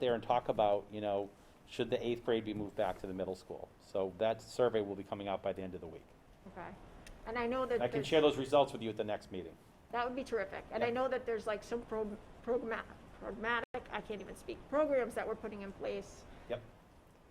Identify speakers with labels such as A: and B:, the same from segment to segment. A: there and talk about, you know, should the eighth grade be moved back to the middle school? So that survey will be coming out by the end of the week.
B: Okay, and I know that
A: I can
B: there's,
A: share those results with you at the next meeting.
B: that would be terrific, and I
A: Yeah.
B: know that there's like some pro- programma- programmatic, I can't even speak, programs that we're putting in place.
A: Yep.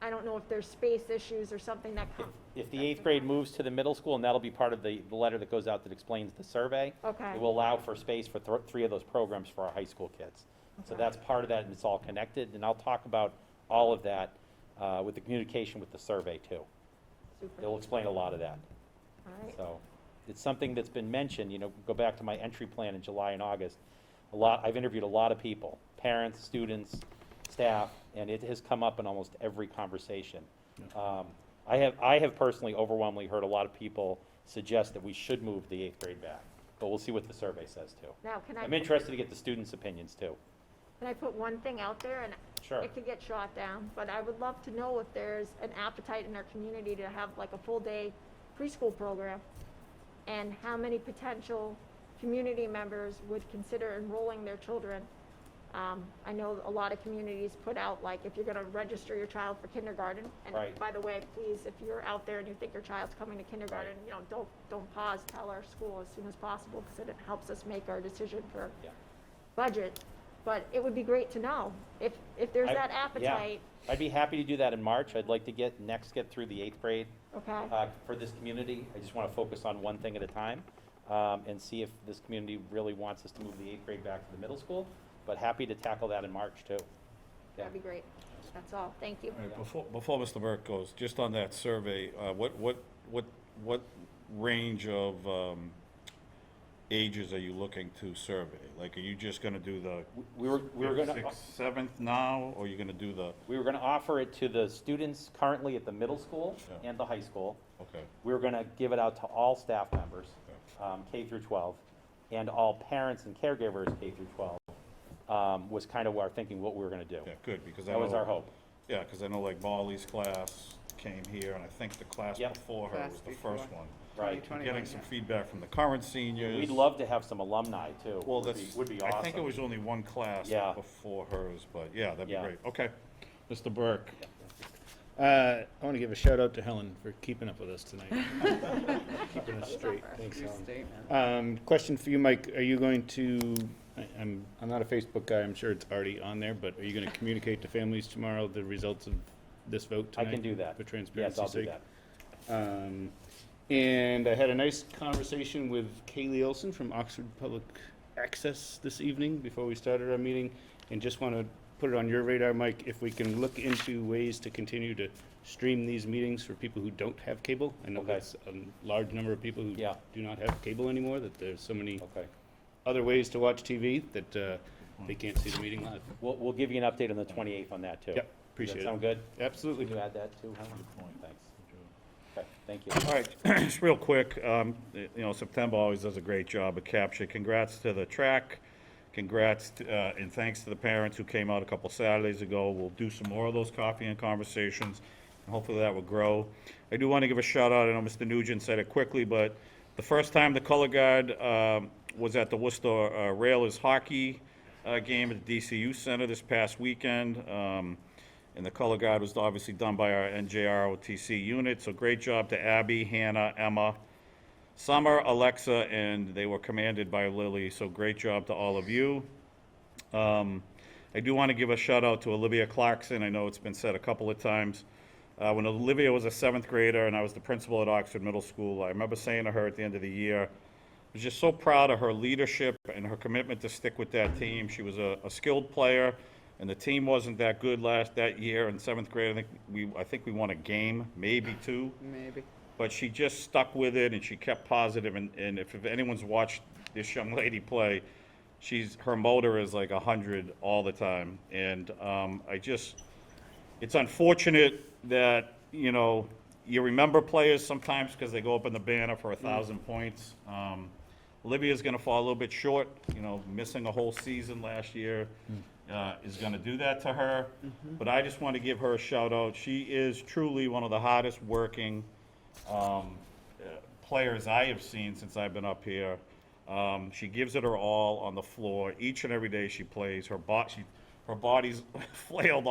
B: I don't know if there's space issues or something that
A: If-
B: come,
A: If the eighth grade moves to the middle school, and that'll be part of the, the letter that goes out that explains the survey,
B: okay.
A: it will allow for space for thr- three of those programs for our high school kids. So
B: Okay.
A: that's part of that, and it's all connected, and I'll talk about all of that uh, with the communication with the survey too.
B: Super,
A: It'll
B: all
A: explain a lot of that.
B: right,
A: So it's something that's been mentioned, you know, go back to my entry plan in July and August. A lot, I've interviewed a lot of people, parents, students, staff, and it has come up in almost every conversation. Um, I have, I have personally overwhelmingly heard a lot of people suggest that we should move the eighth grade back, but we'll see what the survey says too.
B: now, can I,
A: I'm interested to get the students' opinions too.
B: can I put one thing out there, and
A: Sure.
B: it could get shot down, but I would love to know if there's an appetite in our community to have like a full-day preschool program, and how many potential community members would consider enrolling their children. Um, I know a lot of communities put out, like, if you're gonna register your child for kindergarten, and
A: Right.
B: by the way, please, if you're out there and you think your child's coming to kindergarten, you know, don't, don't pause, tell our school as soon as possible, because it helps us make our decision for
A: Yeah.
B: budget, but it would be great to know if, if there's
A: I-
B: that
A: yeah.
B: appetite,
A: I'd be happy to do that in March. I'd like to get, next get through the eighth grade
B: okay?
A: uh, for this community. I just want to focus on one thing at a time um, and see if this community really wants us to move the eighth grade back to the middle school. But happy to tackle that in March, too. Yeah.
B: That'd be great. That's all. Thank you.
C: All right, before, before Mr. Burke goes, just on that survey, uh, what, what, what, what range of, um, ages are you looking to survey? Like, are you just gonna do the
A: We- We were, we were going to,
C: sixth, seventh now, or you're gonna do the,
A: we were going to offer it to the students currently at the middle school
C: Yeah.
A: and the high school.
C: okay,
A: We were going to give it out to all staff members, um, K through 12, and all parents and caregivers, K through 12, um, was kind of our thinking, what we were going to do.
C: yeah, good, because I
A: That was
C: know-
A: our hope.
C: Yeah, cause I know like Molly's class came here, and I think the class
A: Yep.
C: before her
D: Class
C: was the
D: before.
C: first one.
A: Right.
D: 2021,
C: Getting some
D: yeah.
C: feedback from the current seniors.
A: We'd love to have some alumni, too.
C: Well,
A: Would be-
C: that's,
A: Would be awesome.
C: I think it was only one class
A: Yeah.
C: before hers, but yeah, that'd be
A: Yeah.
C: great. Okay. Mr. Burke,
D: Uh, I want to give a shout out to Helen for keeping up with us tonight. Keeping us straight. Thanks, Helen. Um, question for you, Mike. Are you going to, I- I'm, I'm not a Facebook guy. I'm sure it's already on there, but are you going to communicate to families tomorrow the results of this vote
A: I
D: tonight?
A: can do that.
D: For
A: Yes,
D: transparency's
A: I'll do
D: sake?
A: that.
D: Um, and I had a nice conversation with Kaylee Olson from Oxford Public Access this evening before we started our meeting. And just want to put it on your radar, Mike, if we can look into ways to continue to stream these meetings for people who don't have cable. I know
A: Okay.
D: that's a large number of people who
A: Yeah.
D: do not have cable anymore, that there's so many
A: Okay.
D: other ways to watch TV that uh, they can't see the meeting live.
A: We'll, we'll give you an update on the 28th on that, too.
D: Yep, appreciate
A: Does
D: it.
A: that sound good?
D: Absolutely.
A: Can you add that, too, Helen? Thanks. Okay, thank you.
C: all right, just real quick, um, you know, September always does a great job of capture. Congrats to the track. Congrats, to- uh, and thanks to the parents who came out a couple Saturdays ago. We'll do some more of those coffee and conversations. and Hopefully that will grow. I do want to give a shout out, I know Mr. Nugent said it quickly, but the first time the color guard, um, was at the Worcester uh, Railers hockey, uh, game at the DCU Center this past weekend. Um, And the color guard was obviously done by our NJROTC unit, so great job to Abby, Hannah, Emma, Summer, Alexa, and they were commanded by Lily, so great job to all of you. Um, I do want to give a shout out to Olivia Clarkson. I know it's been said a couple of times. Uh, when Olivia was a seventh grader and I was the principal at Oxford Middle School, I remember saying to her at the end of the year, I was just so proud of her leadership and her commitment to stick with that team. She was a, a skilled player, and the team wasn't that good last that year in seventh grade. I think we I think we won a game, maybe two
D: Maybe.
C: but she just stuck with it and she kept positive and, and if, if anyone's watched this young lady play she's her motor is like 100 all the time and um, i just it's unfortunate that you know you remember players sometimes because they go up in the banner for a thousand points um, olivia's going to fall a little bit short you know missing a whole season last year uh, is going to do that to her but i just want to give her a shout out she is truly one of the hardest working um, uh, players I have seen since I've been up here. Um, she gives it her all on the floor each and every day she plays. Her bo- she, her body's flailed